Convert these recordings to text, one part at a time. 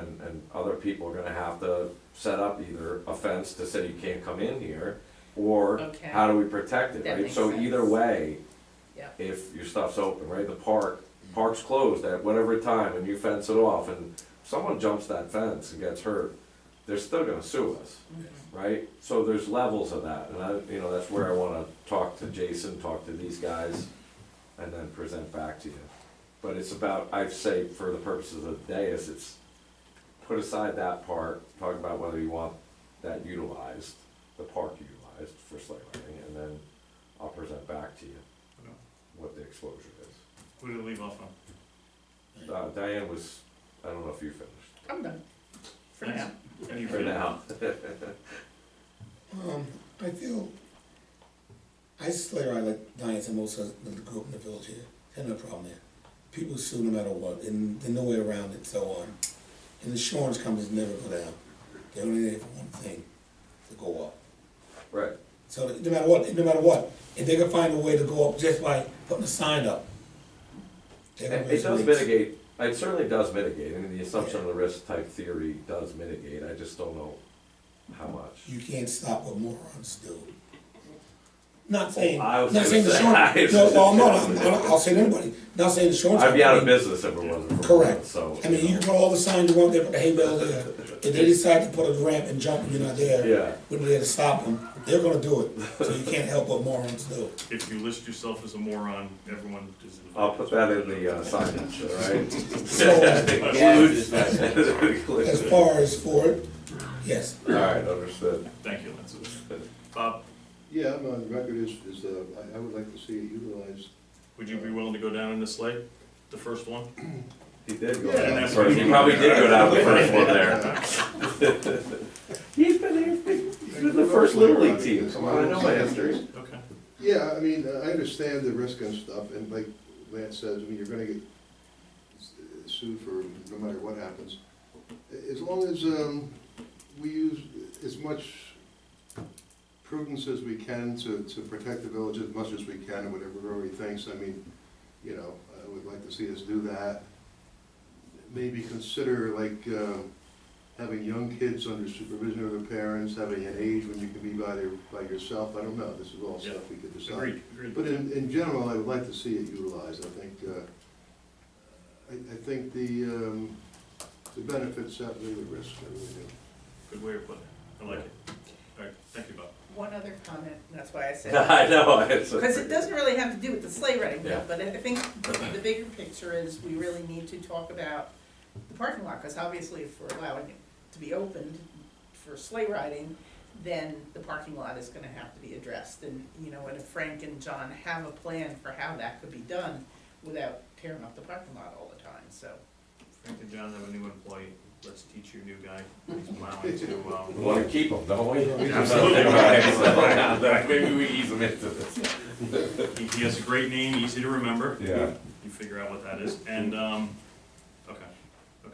and other people are gonna have to set up either a fence to say you can't come in here, or Okay. how do we protect it, That right? makes So either sense. way, Yeah. if your stuff's open, right, the park, park's closed at whatever time and you fence it off and someone jumps that fence and gets hurt, they're still gonna sue us, Mm-hmm. right? So there's levels of that, and I, you know, that's where I wanna talk to Jason, talk to these guys, and then present back to you. But it's about, I say, for the purposes of the dais, it's put aside that part, talk about whether you want that utilized, the park utilized for sleigh riding, and then I'll present back to you what the exposure is. Who did it leave off on? Uh, Diane was, I don't know if you finished. I'm done. For Nice. now. Any For read? now. Um, I feel, I sleigh ride like Diane said, most of the grew up in the village here, had no problem there. People sue no matter what, and there's no way around it, so, um, and insurance companies never go down. They're only there for one thing, to go up. Right, So no matter what, no matter what, if they can find a way to go up just by putting a sign up. they're gonna It it raise does rates. mitigate, it certainly does mitigate, I mean, the assumption of the risk type theory does mitigate, I just don't know how much. You can't stop what morons do. Not saying, Oh, I was not gonna saying the say, short, I no, was well, no, just- I'm not, I'll say to anybody, not saying the short. I'd be out of business if it wasn't for that, Correct. so. I mean, you you can know. put all the signs you want there, put the hay bale there, if they decide to put a ramp and jump and you're not there, Yeah, we're there to stop them, they're gonna do it, so you can't help what morons do. If you list yourself as a moron, everyone is invited. I'll put that in the uh, signage, all right? So, as All far as for it, yes, right, understood. Thank you, Lance. Bob, Yeah, I'm on record is, is, uh, I, I would like to see it utilized. would you be willing to go down in this lake, the first one? He did go Yeah, down the that's- first, he probably did go down the first one there. Yeah. He's been here, he's been the first Little League team, come on, I know my history. Okay. Yeah, I mean, uh, I understand the risk and stuff, and like Lance says, I mean, you're gonna get s- sued for no matter what happens. A- As long as, um, we use as much prudence as we can to, to protect the village as much as we can, and whatever Rory thinks, I mean, you know, I would like to see us do that. Maybe consider like, uh, having young kids under supervision of their parents, having an age when you can be by their, by yourself, I don't know, this is all Yeah. stuff we could decide. Agreed, agreed. But in, in general, I would like to see it utilized, I think, uh, I, I think the, um, the benefits outweigh the risks, I really do. Good way of putting it. I like it. All right, thank you, Bob. One other comment, and that's why I said, I know, it's. because it doesn't really have to do with the sleigh riding, Yeah. but I think the bigger picture is we really need to talk about the parking lot, because obviously if we're allowing it to be opened for sleigh riding, then the parking lot is gonna have to be addressed, and, you know, and if Frank and John have a plan for how that could be done without tearing up the parking lot all the time, so. Frank and John have a new employee. Let's teach your new guy. He's plowing to, We um, wanna keep them, don't we? Absolutely. Right, so, Maybe we ease them into this. he, he has a great name, easy to remember. Yeah. You figure out what that is. And, um, okay, okay.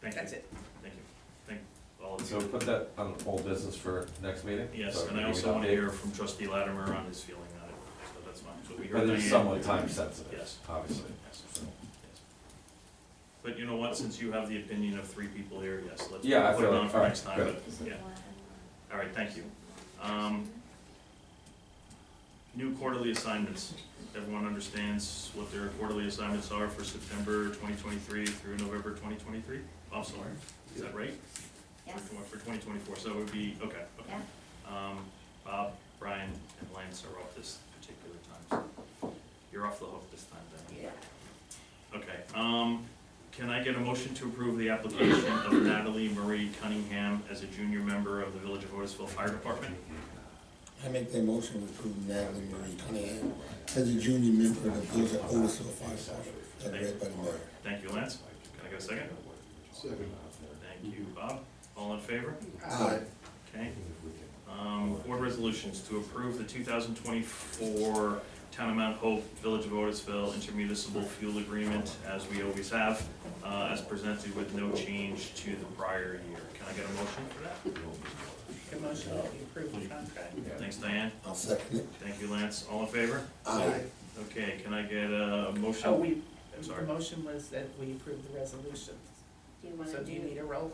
Thank you. That's it. Thank you. Thank all of you. So put that on old business for next meeting? Yes, So and I we also can want to update. hear from trustee Latimer on his feeling on it, so that's fine. So we But heard it's Diane. somewhat time sensitive, Yes. obviously. Yes, yes. But you know what, since you have the opinion of three people here, yes, let's Yeah, I put it feel on it. for All right, next time, good. but, yeah. All right, thank you. Um, New quarterly assignments. Everyone understands what their quarterly assignments are for September twenty twenty-three through November twenty twenty-three? I'm sorry, is that right? Yes, For twen- For twenty twenty-four, so it would be, okay, okay. yeah. Um, Bob, Brian, and Lance are off this particular time, so you're off the hook this time, then. Yeah. Okay, um, can I get a motion to approve the application of Natalie Marie Cunningham as a junior member of the Village of Otisville Fire Department? I make that motion to approve Natalie Marie Cunningham as a junior member of the Village of Otisville Fire Department, as read by the mayor. Thank you, Lance. Can I get a second? Second. Thank you, Bob. All in favor? Uh, Okay. Um, board resolutions to approve the two thousand twenty-four Town of Mount Hope, Village of Otisville intermunicipal fuel agreement, as we always have, uh, as presented with no change to the prior year. Can I get a motion for that? Good motion, that we approve the contract. Thanks, Diane. I'll second it. Thank you, Lance. All in favor? Aye. Okay, can I get a Oh, motion? we, I'm the sorry. motion was that we approve the resolution. Do you wanna So do you do, need a roll